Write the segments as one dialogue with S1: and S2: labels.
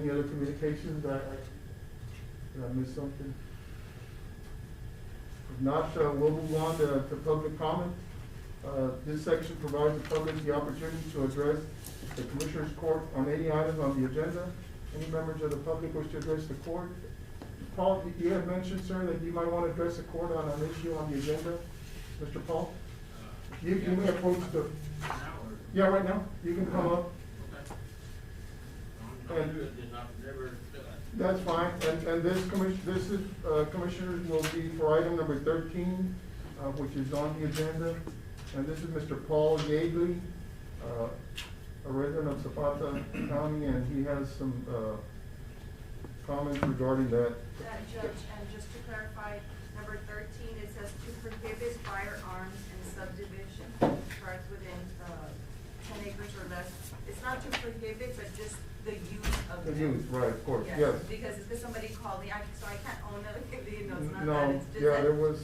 S1: Any other communications? I, I, did I miss something? If not, uh, we'll move on to, to public comment. Uh, this section provides the public the opportunity to address the Commissioners Court on any item on the agenda. Any members of the public wish to address the court? Paul, you- you had mentioned, sir, that you might want to address the court on an issue on the agenda. Mr. Paul, you, you may approach the, yeah, right now, you can come up. That's fine, and, and this commission, this is, uh, commissioners will be for item number thirteen, uh, which is on the agenda. And this is Mr. Paul Yeagley, uh, a resident of Zapata County, and he has some, uh, comments regarding that.
S2: Uh, Judge, and just to clarify, number thirteen, it says to prohibit firearms in subdivision charged within, uh, ten acres or less. It's not to prohibit, but just the use of
S1: The
S2: them.
S1: use, right, of course, yes.
S2: Because it's because somebody called me, I, so I can't own it, you know, it's not that,
S1: No,
S2: it's just
S1: yeah,
S2: that.
S1: there was,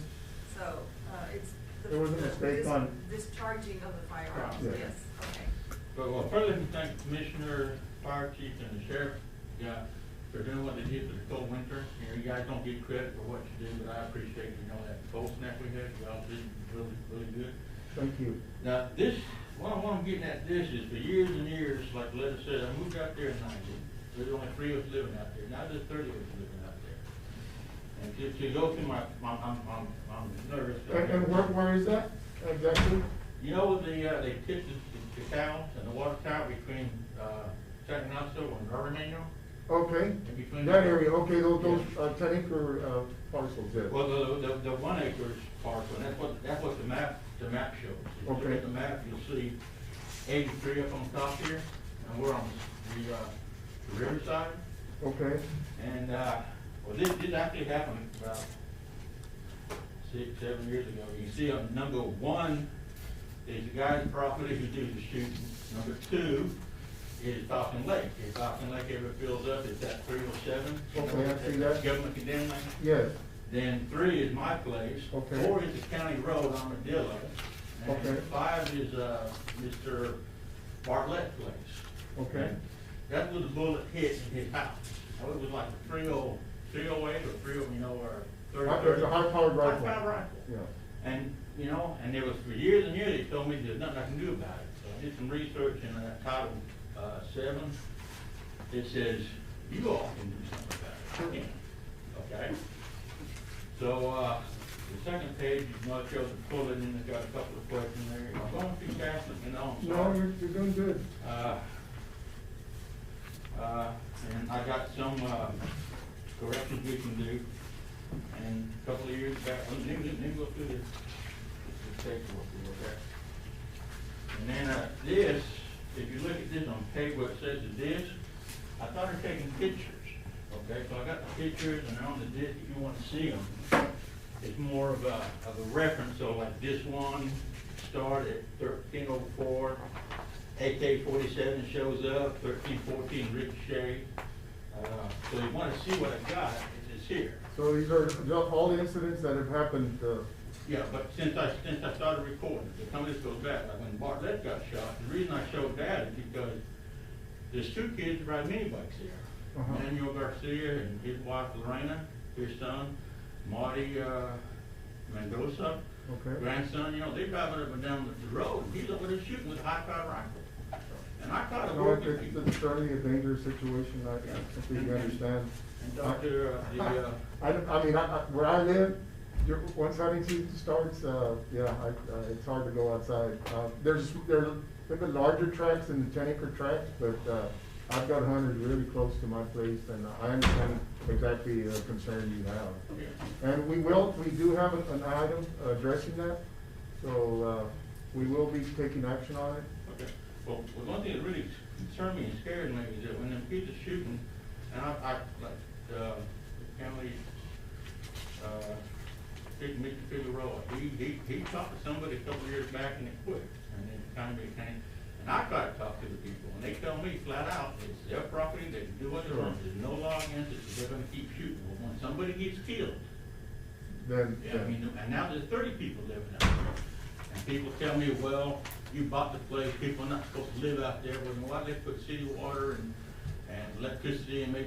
S2: So, uh, it's. the-
S1: There was a
S2: the-
S1: mistake
S2: this-
S1: on-
S2: Discharging of the firearms,
S1: Yeah.
S2: yes, okay.
S3: But well, further to thank Commissioner, Fire Chief, and the Sheriff, yeah, for doing what they did for the cold winter. You know, you guys don't get credit for what you did, but I appreciate, you know, that cold snap we had, y'all did really, really good.
S1: thank you.
S3: Now, this, what I am getting at this is for years and years, like Letta said, I moved out there in ninety. There's only three of us living out there, now there's thirty of us living out there. And to, to go through my, my- I'm, I'm, I'm nervous.
S1: And, and Uh, where, where is that exactly?
S3: You know, the, uh, they tipped the, the town and the water tower between, uh, San Ignacio and Armino?
S1: Okay,
S3: between
S1: that area, okay, those, those,
S3: Yeah.
S1: uh, ten acre, uh, parcels there.
S3: Well, the, the, the one acres parcel, and that's what, that's what the map, the map shows. If you look
S1: Okay.
S3: at the map, you'll see eighty-three up on top here, and we're on the, uh, the riverside.
S1: Okay,
S3: And, uh, well, this, this actually happened about six, seven years ago. You see on number one is the guy's property who did the shooting. Number two is Falcon Lake. If Falcon Lake ever fills up, it's that three oh seven.
S1: Okay, I see that.
S3: Government condemned land.
S1: yes,
S3: Then three is my place.
S1: Okay.
S3: Four is the county road Armadillo. And
S1: Okay.
S3: five is, uh, Mr. Bartlett's place.
S1: okay.
S3: That was a bullet hit in his house. Now, It was like a three oh, three oh eight or three oh, you know, or thirty.
S1: Right, It's a high-powered rifle.
S3: High-powered rifle.
S1: Yeah,
S3: And, you know, and there was, for years and years, they told me there's nothing I can do about it. So I did some research in uh, Title, uh, seven. It says, you all can do something about it. I can't. Okay? So, uh, the second page, you know, it shows the bullet and it's got a couple of questions there. I'm going too fast, you know, I'm
S1: no,
S3: sorry.
S1: you're, you're doing good.
S3: Uh, uh, And I got some uh, corrections we can do. And a couple of years back, let me, let me go through this, this paperwork real quick. And then uh, this, if you look at this on paper, it says the disc, I started taking pictures, okay? So I got the pictures and they're on the disc, if you want to see them. It's more of a, of a reference, so like this one started at thirteen oh four, AK forty-seven shows up, thirteen fourteen ricochet. Uh, So you wanna see what I got, it's here.
S1: So these are ju- all the incidents that have happened, uh,
S3: Yeah, but since I, since I started recording, if some of this goes back, like when Bartlett got shot, the reason I showed that is because there's two kids ride mini bikes here.
S1: Uh-huh.
S3: Manuel Garcia and his wife Lorena, their son, Marty, uh, Mendoza,
S1: okay?
S3: grandson, you know, they driving up and down the road, he's over there shooting with a high-power rifle. And I caught a
S1: No, it's,
S3: working
S1: it's-
S3: people.
S1: it's certainly a dangerous situation, I
S3: Yeah.
S1: completely understand.
S3: And Dr., uh, the, uh,
S1: I, don't- I mean, I, I, where I live, you're, once hunting season starts, uh, yeah, I, uh, it's hard to go outside. Uh, there's, there are a bit larger tracks than the ten acre tracks, but, uh, I've got hunters really close to my place, and I understand exactly the concern you have.
S3: yeah.
S1: And we will, we do have an an item addressing that, so uh, we will be taking action on it.
S3: Okay, well, well, one thing that really concerned me and scared me is that when them kids are shooting, and I, I, like, uh, the county, uh, big Mr. Figueroa, he, he, he talked to somebody a couple of years back and it quit, and then kind of became, and I tried to talk to the people, and they tell me flat out, it's their property, they can do what they want, there's no law against it, they're gonna keep shooting, but when somebody gets killed,
S1: Then,
S3: yeah, I
S1: then-
S3: mean, and now there's thirty people living out there. And people tell me, well, you bought the place, people are not supposed to live out there, well, why they put city water and, and electricity and make